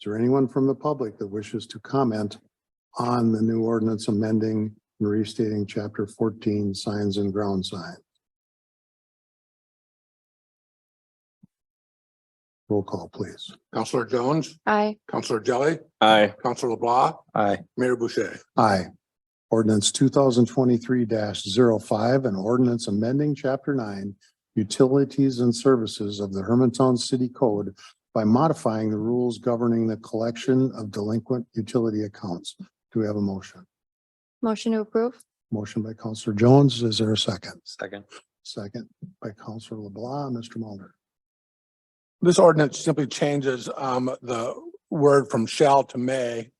Is there anyone from the public that wishes to comment on the new ordinance amending and restating chapter fourteen, signs and ground signs? Roll call, please. Counselor Jones, Aye. Counselor Jelly, Aye. Counselor LeBlanc, Aye. Mayor Boucher. Aye. Ordinance two thousand twenty-three 5 an ordinance amending chapter nine, utilities and services of the Hermantown City Code by modifying the rules governing the collection of delinquent utility accounts. Do we have a motion? Motion to approve? Motion by Counselor Jones. Is there a second? Second. Second by Counselor LeBlanc. Mr. Mulder. This ordinance simply changes um the word from shall to may.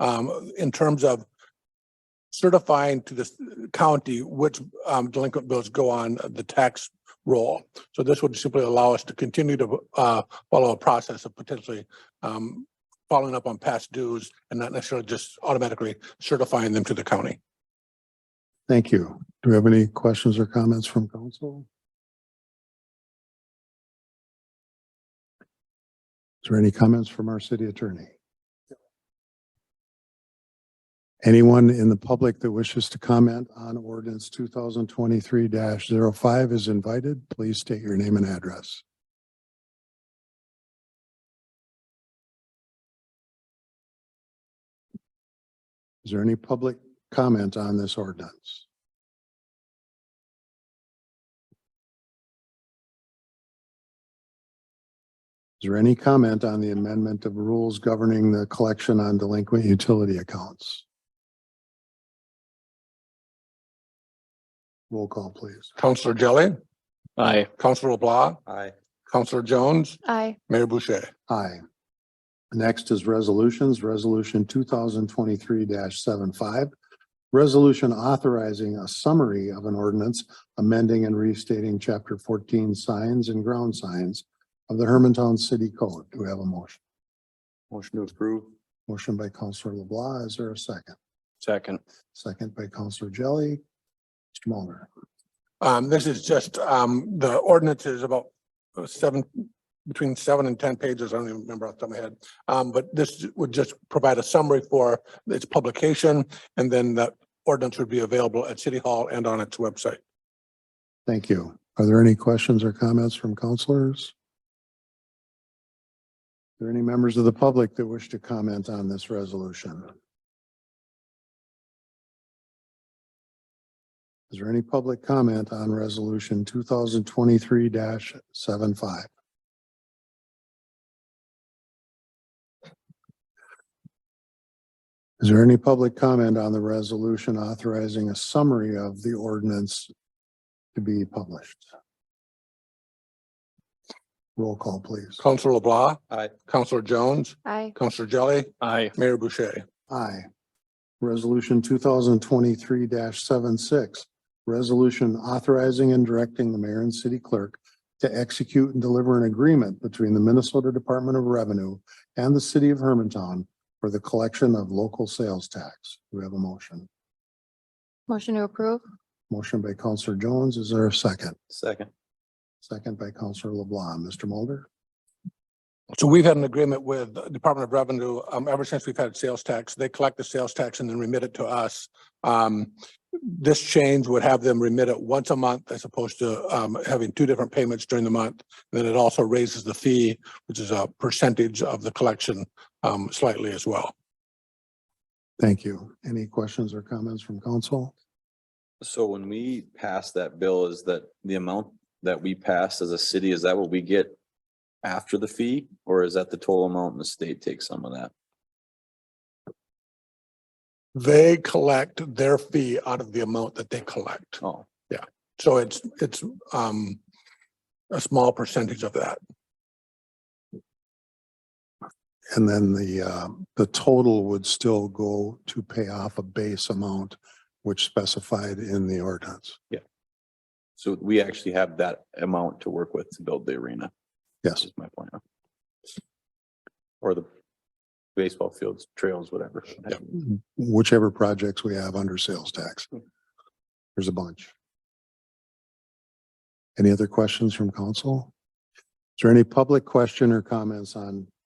Um, in terms of certifying to the county which um delinquent bills go on the tax roll. So this would simply allow us to continue to uh follow a process of potentially um following up on past dues and not necessarily just automatically certifying them to the county. Thank you. Do we have any questions or comments from council? Is there any comments from our city attorney? Anyone in the public that wishes to comment on ordinance two thousand twenty-three 5 is invited. Please state your name and address. Is there any public comment on this ordinance? Is there any comment on the amendment of rules governing the collection on delinquent utility accounts? Roll call, please. Counselor Jelly, Aye. Counselor LeBlanc, Aye. Counselor Jones, Aye. Mayor Boucher. Aye. Next is resolutions, resolution two thousand twenty-three 75 Resolution authorizing a summary of an ordinance amending and restating chapter fourteen signs and ground signs of the Hermantown City Code. Do we have a motion? Motion to approve. Motion by Counselor LeBlanc. Is there a second? Second. Second by Counselor Jelly. Mr. Mulder. Um, this is just, um, the ordinance is about seven, between seven and ten pages. I don't even remember off the top of my head. Um, but this would just provide a summary for its publication and then the ordinance would be available at City Hall and on its website. Thank you. Are there any questions or comments from counselors? Are there any members of the public that wish to comment on this resolution? Is there any public comment on resolution two thousand twenty-three 75 Is there any public comment on the resolution authorizing a summary of the ordinance to be published. Roll call, please. Counselor LeBlanc. Aye. Counselor Jones, Aye. Counselor Jelly, Aye. Mayor Boucher. Aye. Resolution two thousand twenty-three 76 resolution authorizing and directing the mayor and city clerk to execute and deliver an agreement between the Minnesota Department of Revenue and the city of Hermantown for the collection of local sales tax. Do we have a motion? Motion to approve? Motion by Counselor Jones. Is there a second? Second. Second by Counselor LeBlanc. Mr. Mulder? So we've had an agreement with the Department of Revenue, um, ever since we've had sales tax. They collect the sales tax and then remit it to us. Um, this change would have them remit it once a month as opposed to, um, having two different payments during the month. Then it also raises the fee, which is a percentage of the collection, um, slightly as well. Thank you. Any questions or comments from council? So when we pass that bill, is that the amount that we pass as a city, is that what we get after the fee? Or is that the total amount and the state takes some of that? They collect their fee out of the amount that they collect. Oh, So it's, it's, um, a small percentage of that. And then the, uh, the total would still go to pay off a base amount, which specified in the ordinance. so we actually have that amount to work with to build the arena. Yes. Is my point. Or the baseball fields, trails, whatever. Whichever projects we have under sales tax. There's a bunch. Any other questions from council? Is there any public question or comments on